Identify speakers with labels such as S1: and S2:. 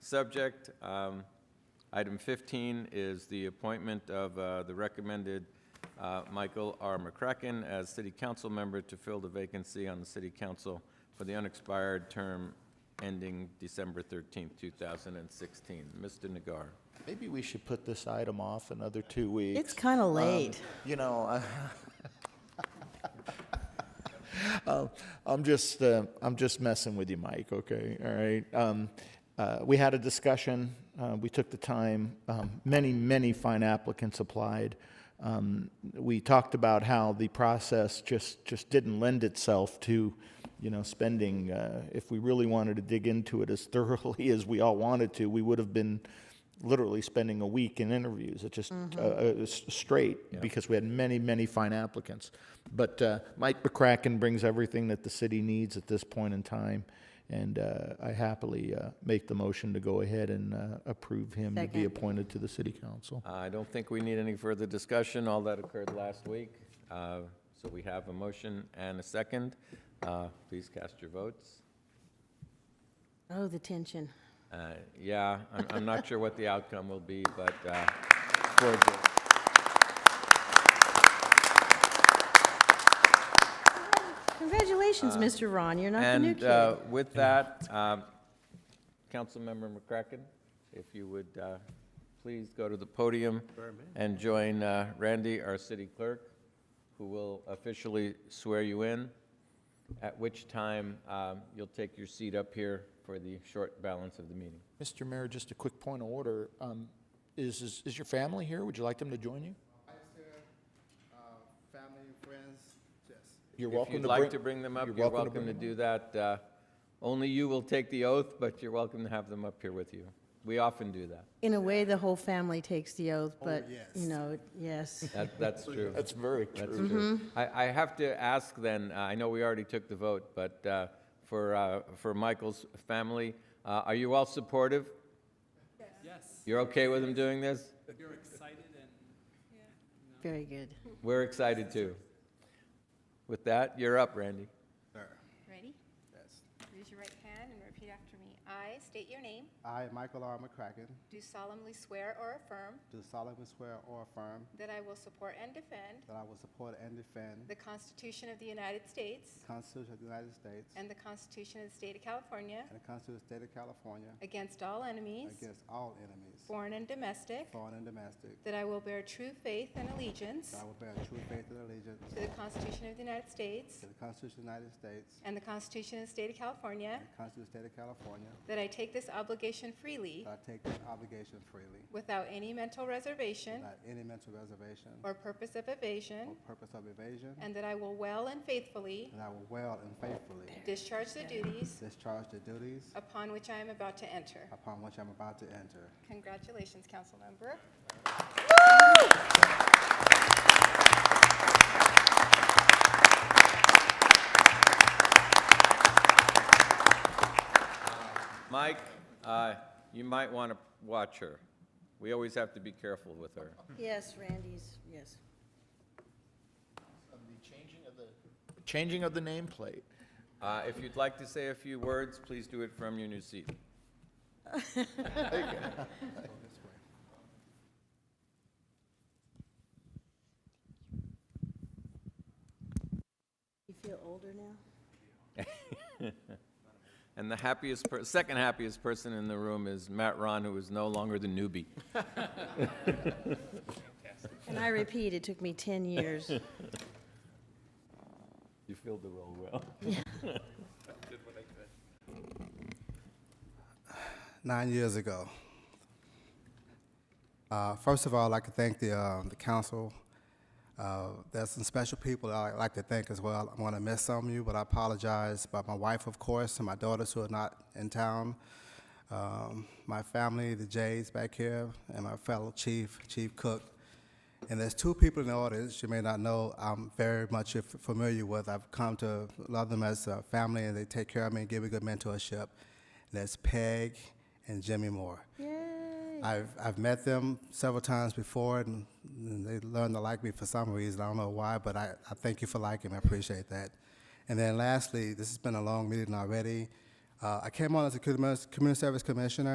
S1: subject. Um, Item 15 is the appointment of uh, the recommended uh, Michael R. McCracken as city council member to fill the vacancy on the city council for the unexpired term ending December 13, 2016. Mr. Nagar.
S2: Maybe we should put this item off another two weeks.
S3: It's kind of late.
S2: You know, I- Uh, I'm just, uh, I'm just messing with you, Mike, okay? All right? Um, uh, We had a discussion, uh, we took the time, um, many, many fine applicants applied. Um, We talked about how the process just, just didn't lend itself to, you know, spending, uh, if we really wanted to dig into it as thoroughly as we all wanted to, we would have been literally spending a week in interviews. It just uh, uh, s- straight because we had many, many fine applicants. But uh, Mike McCracken brings everything that the city needs at this point in time, and uh, I happily uh, make the motion to go ahead and uh, approve him to be
S3: Second.
S2: appointed to the city council.
S1: I don't think we need any further discussion. All that occurred last week. Uh, So we have a motion and a second. Uh, Please cast your votes.
S3: Oh, the tension.
S1: Uh, Yeah, I'm, I'm not sure what the outcome will be, but uh, for the-
S3: Congratulations, Mr. Ron, you're not the new
S1: And
S3: kid.
S1: uh, with that, um, Councilmember McCracken, if you would uh, please go to the podium and join uh, Randy, our city clerk, who will officially swear you in, at which time um, you'll take your seat up here for the short balance of the meeting.
S2: Mr. Mayor, just a quick point of order. Um, Is, is- is your family here? Would you like them to join you? uh,
S4: family, friends, yes.
S2: You're
S1: If
S2: welcome
S1: you'd
S2: to
S1: like
S2: bring.
S1: to bring them up,
S2: you're
S1: you're
S2: welcome to
S1: welcome to
S2: bring
S1: do that. Uh, Only you will take the oath, but you're welcome to have them up here with you. We often do that.
S3: In a way, the whole family takes the oath, but,
S4: yes.
S3: you know, yes.
S1: That- That's true.
S2: That's very
S1: That's
S2: true.
S1: true. I, I have to ask then, uh, I know we already took the vote, but uh, for, uh, for Michael's family, uh, are you all supportive?
S5: Yes,
S1: You're okay with him doing this?
S5: you're excited and
S3: Very good.
S1: We're excited too. With that, you're up, Randy.
S6: Ready?
S4: Yes.
S6: Raise your right hand and repeat after me. I state your name,
S4: I, Michael R. McCracken,
S6: do solemnly swear or affirm
S4: do solemnly swear or affirm
S6: that I will support and defend
S4: that I will support and defend
S6: the Constitution of the United States
S4: the Constitution of the United States and
S6: and the Constitution of the State of California
S4: the Constitution of the State of California
S6: against all enemies,
S4: against all enemies,
S6: foreign and domestic,
S4: foreign and domestic,
S6: that I will bear true faith and allegiance
S4: that I will bear true faith and allegiance
S6: to the Constitution of the United States
S4: to the Constitution of the United States
S6: and the Constitution of the State of California,
S4: and the Constitution of the State of California,
S6: that I take this obligation freely
S4: that I take this obligation freely
S6: without any mental reservation
S4: without any mental reservation
S6: or purpose of
S4: or
S6: evasion,
S4: purpose of evasion,
S6: and that I will well and faithfully
S4: and I will well and faithfully
S6: Discharge the duties
S4: discharge the duties
S6: upon which I am about to enter.
S4: upon which I'm about to enter.
S6: Congratulations, Councilmember.
S1: Mike, uh, you might want to watch her. We always have to be careful with her.
S3: Yes, Randy's, yes.
S2: Changing of the nameplate.
S1: Uh, If you'd like to say a few words, please do it from your new seat.
S3: You feel older now?
S1: And the happiest, per- second happiest person in the room is Matt Ron, who is no longer the newbie.
S3: And I repeat, it took me 10 years.
S1: You filled the role well.
S4: nine years ago. Uh, first of all, I'd like to thank the, um, the council. Uh, there's some special people that I'd like to thank as well. I'm going to miss some of you, but I apologize. But my wife, of course, and my daughters who are not in town, um, my family, the Jays back here, and my fellow chief, Chief Cook. And there's two people in the audience you may not know I'm very much f- familiar with. I've come to love them as a family, and they take care of me and give me good mentorship. And that's Peg and Jimmy Moore.
S3: Yay.
S4: I've, I've met them several times before, and, and they learned to like me for some reason. I don't know why, but I, I thank you for liking me. I appreciate that. And then lastly, this has been a long meeting already. Uh, I came on as a commu- community service commissioner.